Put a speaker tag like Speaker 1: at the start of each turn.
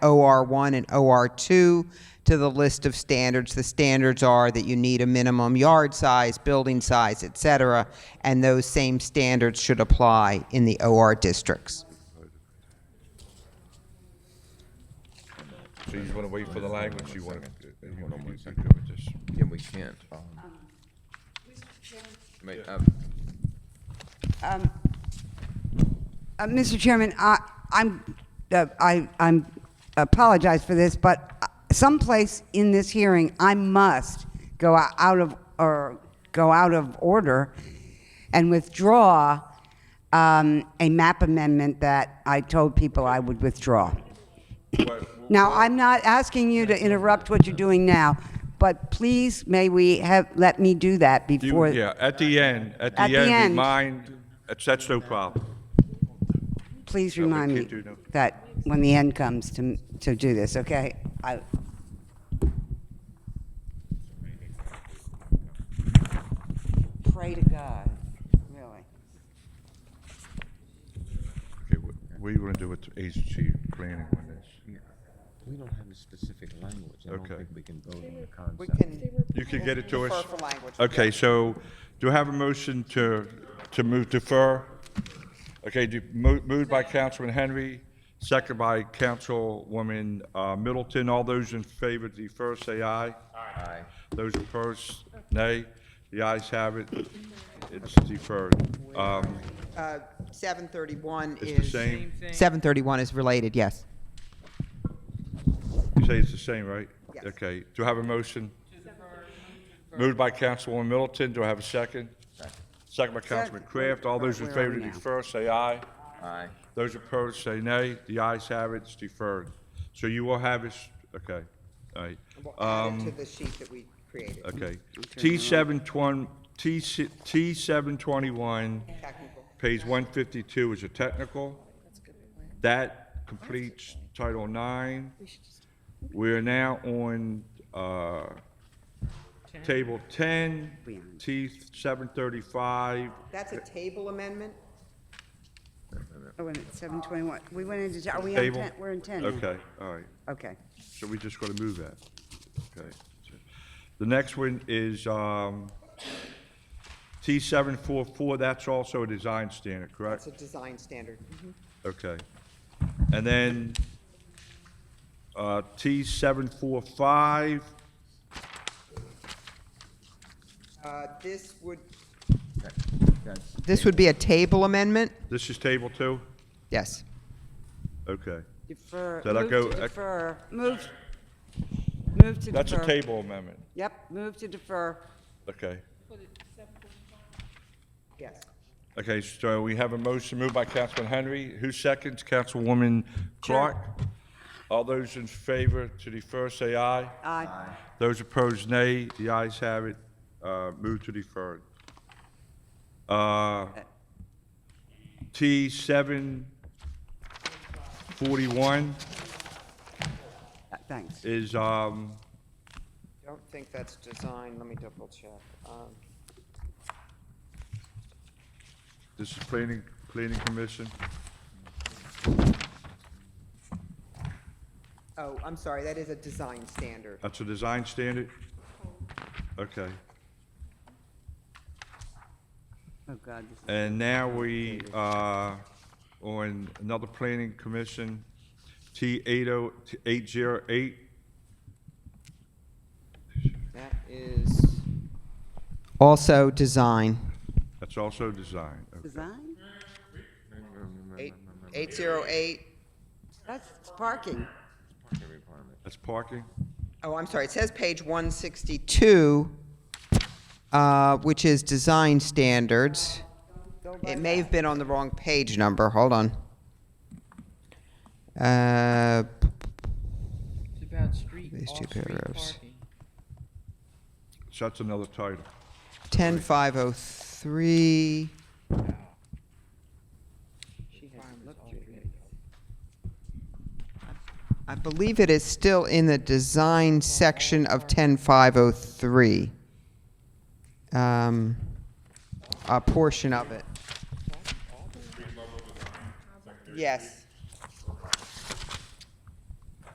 Speaker 1: OR1 and OR2 to the list of standards. The standards are that you need a minimum yard size, building size, et cetera, and those same standards should apply in the OR districts.
Speaker 2: So you just wanna wait for the language, you wanna, you wanna do this?
Speaker 3: Yeah, we can't. May- uh,
Speaker 4: Um, Uh, Mr. Chairman, I, I'm, uh, I, I'm apologize for this, but uh, someplace in this hearing, I must go o- out of or go out of order and withdraw um, a map amendment that I told people I would withdraw. Now, I'm not asking you to interrupt what you're doing now, but please may we have let me do that
Speaker 2: You,
Speaker 4: before.
Speaker 2: yeah, at the end, at the
Speaker 4: At the
Speaker 2: end,
Speaker 4: end.
Speaker 2: remind, that's, that's no problem.
Speaker 4: Please
Speaker 2: we
Speaker 4: remind
Speaker 2: can't
Speaker 4: me
Speaker 2: do no-
Speaker 4: that when the end comes to, to do this, okay? I, pray to God, really.
Speaker 2: Okay, wh- what do you wanna do with the agency planning on this?
Speaker 3: We don't have a specific language. I don't
Speaker 2: Okay.
Speaker 3: think we can vote on the concept.
Speaker 2: You can get it to us?
Speaker 1: Defer for language.
Speaker 2: Okay, so do I have a motion to, to move defer? Okay, do- mo- moved by Councilman Henry, second by Councilwoman uh, Middleton. All those in favor of defer, say aye.
Speaker 3: Aye.
Speaker 2: Those opposed, nay. The ayes have it. It's deferred. Um,
Speaker 1: 731
Speaker 2: It's the same,
Speaker 1: 731 is related, yes.
Speaker 2: you say it's the same, right?
Speaker 1: Yes.
Speaker 2: Okay, do I have a motion? Moved by Councilwoman Middleton, do I have a second? Second by Councilman
Speaker 4: Second.
Speaker 2: Kraft. All those in
Speaker 4: Where are
Speaker 2: favor
Speaker 4: we
Speaker 2: to
Speaker 4: now?
Speaker 2: defer, say aye.
Speaker 3: Aye.
Speaker 2: Those opposed say nay. The ayes have it, it's deferred. So you will have it, okay, all right. Um,
Speaker 1: the sheet that we created,
Speaker 2: Okay. T seven twenty, T, si- T seven twenty-one,
Speaker 1: technical.
Speaker 2: page one fifty-two is a technical. That completes Title Nine. We are now on, uh, Table ten, T seven thirty-five.
Speaker 1: That's a table amendment?
Speaker 4: Oh, and it's seven twenty-one. We went into, are we on
Speaker 2: Table.
Speaker 4: ten? We're in ten. now.
Speaker 2: Okay, all right.
Speaker 4: Okay.
Speaker 2: So we just gotta move that. Okay. The next one is, um, T seven four four, that's also a design standard, correct?
Speaker 1: a design standard.
Speaker 2: Okay. And then, uh, T seven four five,
Speaker 1: Uh, This would,
Speaker 3: That- That's,
Speaker 1: this would be a table amendment?
Speaker 2: this is table two?
Speaker 1: Yes.
Speaker 2: Okay.
Speaker 4: Defer,
Speaker 2: Did I move to go-
Speaker 4: defer. Move, move to defer.
Speaker 2: That's a table amendment.
Speaker 4: Yep, move to defer.
Speaker 2: Okay.
Speaker 1: Yes.
Speaker 2: Okay, so we have a motion moved by Councilman Henry. Who seconds? Councilwoman Clark? All those in favor to defer, say aye.
Speaker 4: Aye.
Speaker 2: Those opposed, nay. The ayes have it. Uh, Move to defer. Uh, T seven forty-one
Speaker 4: Uh, Thanks.
Speaker 2: is, um,
Speaker 1: Don't think that's design, let me double check. Um,
Speaker 2: this is planning, planning commission.
Speaker 1: Oh, I'm sorry, that is a design standard.
Speaker 2: That's a uh, design standard? Okay.
Speaker 4: Oh, God, this
Speaker 2: And now we are on another planning commission, T eight oh, eight zero eight.
Speaker 1: That is... Also design.
Speaker 2: That's also design.
Speaker 4: is design?
Speaker 1: 808,
Speaker 4: That's parking.
Speaker 2: That's parking?
Speaker 1: oh, I'm sorry, it says page 162, uh, which is design standards. It may have been on the wrong page number, hold on. Uh,
Speaker 5: It's about street,
Speaker 1: These two
Speaker 5: off-street
Speaker 1: paragraphs.
Speaker 5: parking.
Speaker 2: So that's another title.
Speaker 1: 10503,
Speaker 5: She hasn't looked through it.
Speaker 1: I believe it is still in the design section of 10503. Um, A portion of it. Yes.